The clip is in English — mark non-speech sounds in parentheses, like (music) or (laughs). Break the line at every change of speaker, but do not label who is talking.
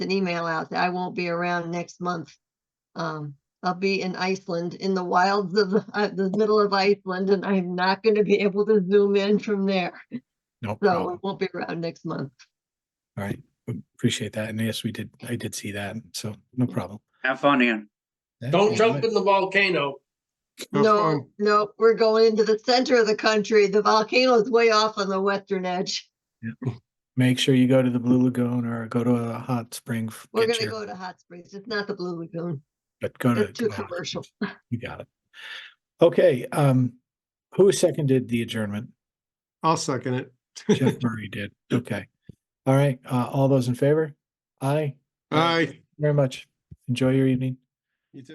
an email out that I won't be around next month. Um, I'll be in Iceland, in the wilds of, the- uh, the middle of Iceland, and I'm not gonna be able to zoom in from there.
No
So I
problem.
won't be around next month.
All right. Appreciate that. And yes, we did, I did see that. So no
Mm.
problem.
Have fun, Ian.
Don't jump in the volcano.
No, no, we're going into the center of the country. The volcano is way off on the western edge.
Make sure you go to the Blue Lagoon or go to a hot spring. f-
We're
get
gonna
your-
go to Hot Springs. It's not the Blue Lagoon.
But go to.
It's too
uh,
commercial. (laughs)
You got it. Okay, um, who seconded the adjournment?
I'll second it.
Jeff Murray did. Okay. All right, uh, all those in favor? Aye,
Aye.
very much. Enjoy your evening.